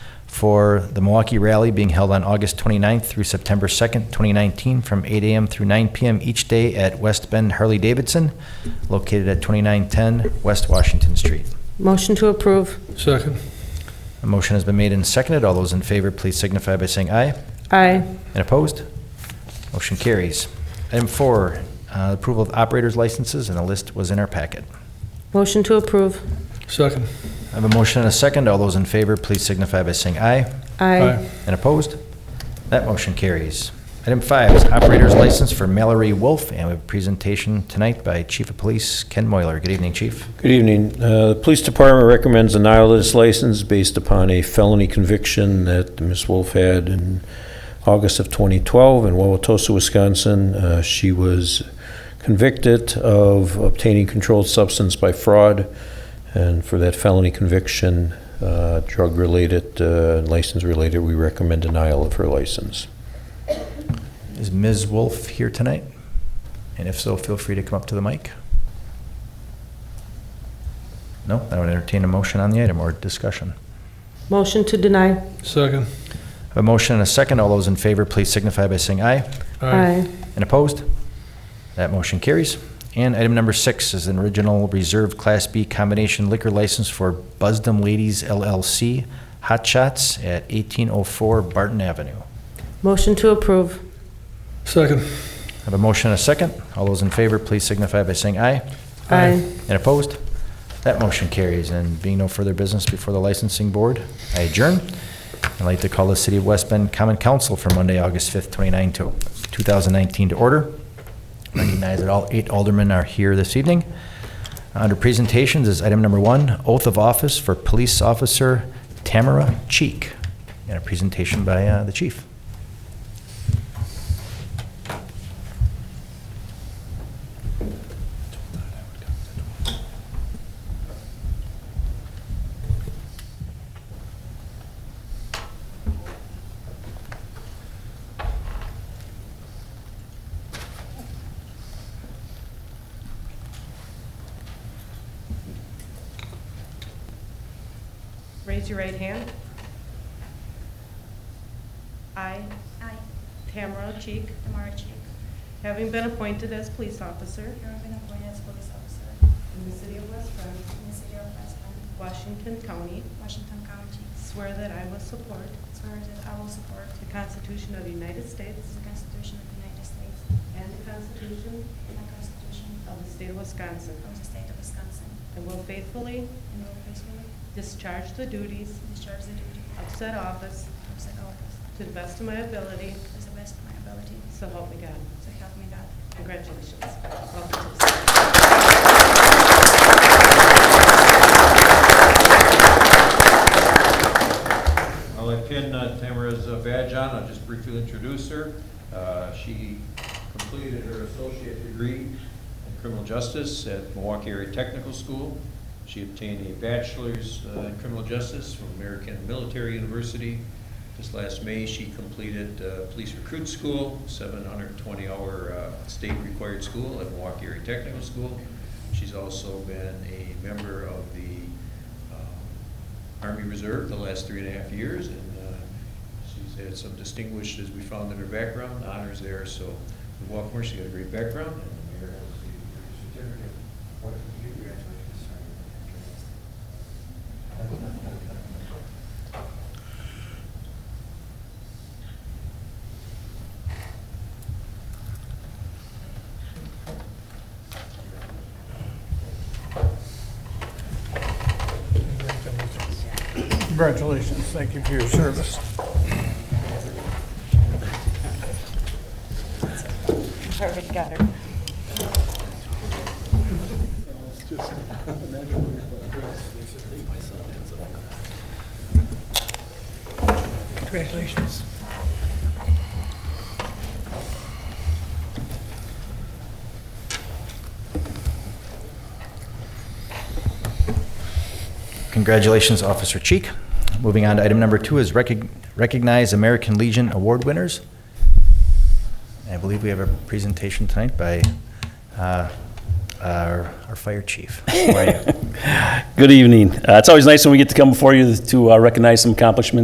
for the Milwaukee Rally being held on August 29th through September 2nd, 2019, from 8 a.m. through 9 p.m. each day at West Bend Harley-Davidson, located at 2910 West Washington Street. Motion to approve. Second. A motion has been made and seconded. All those in favor, please signify by saying aye. Aye. And opposed? Motion carries. Item four, uh, approval of operators licenses, and the list was in our packet. Motion to approve. Second. I have a motion and a second. All those in favor, please signify by saying aye. Aye. And opposed? That motion carries. Item five is operator's license for Mallory Wolf, and we have a presentation tonight by Chief of Police Ken Moyler. Good evening, Chief. Good evening. Uh, The police department recommends denial of this license based upon a felony conviction that Ms. Wolf had in August of 2012 in Wauwatosa, Wisconsin. Uh, She was convicted of obtaining controlled substance by fraud, and for that felony conviction, uh, drug-related, uh, license-related, we recommend denial of her license. Is Ms. Wolf here tonight? And if so, feel free to come up to the mic. No, I would entertain a motion on the item or discussion. Motion to deny. Second. I have A motion and a second. All those in favor, please signify by saying aye. And opposed? That motion carries. And item number six is an original reserve Class B combination liquor license for Busdum Ladies LLC Hot Shots at 1804 Barton Avenue. Motion to approve. Second. I have a motion and a second. All those in favor, please signify by saying aye. Aye. And opposed? That motion carries. And being no further business before the licensing board, I adjourn. I'd like to call the City of West Bend Common Council for Monday, August 5th, 29 to 2019 to order. Recognize that all eight aldermen are here this evening. Under presentations is item number one, oath of office for Police Officer Tamara Cheek, and a presentation by uh, the chief. Raise your right hand. I, I, Tamara Cheek, Tamara Chick, having been appointed as police officer having been appointed as police officer in the city of West Bend, in the city of West Bend, Washington County, Washington County, swear that I will support swear that I will support the Constitution of the United States the Constitution of the United States and the Constitution and the Constitution of the state of Wisconsin, of the state of Wisconsin, and will faithfully and will faithfully discharge the duties discharge the duty of said office of said office to the best of my ability, to the best of my ability, so help me God. so help me God. Congratulations. Welcome to the city. I'll let Ken uh, Tamara's uh, badge on, I'll just briefly introduce her. Uh, She completed her associate degree in criminal justice at Milwaukee Area Technical School. She obtained a bachelor's uh, in criminal justice from American Military University. This last May, she completed uh, police recruit school, 720-hour state-required uh, school at Milwaukee Area Technical School. She's also been a member of the um, Army Reserve the last three and a half years, and uh, she's had some distinguished, as we found in her background, honors there, so we welcome her, she's got a great background, and the mayor has the certificate. What if you graduated, sorry, after this? Congratulations. Thank you for your service. Perfect, got her. Congratulations. Congratulations, Officer Cheek. Moving on to item number two is recog- recognize American Legion Award winners. I believe we have a presentation tonight by uh, our our fire chief. How are you? Good evening. Uh, It's always nice when we get to come before you to uh, recognize some accomplishments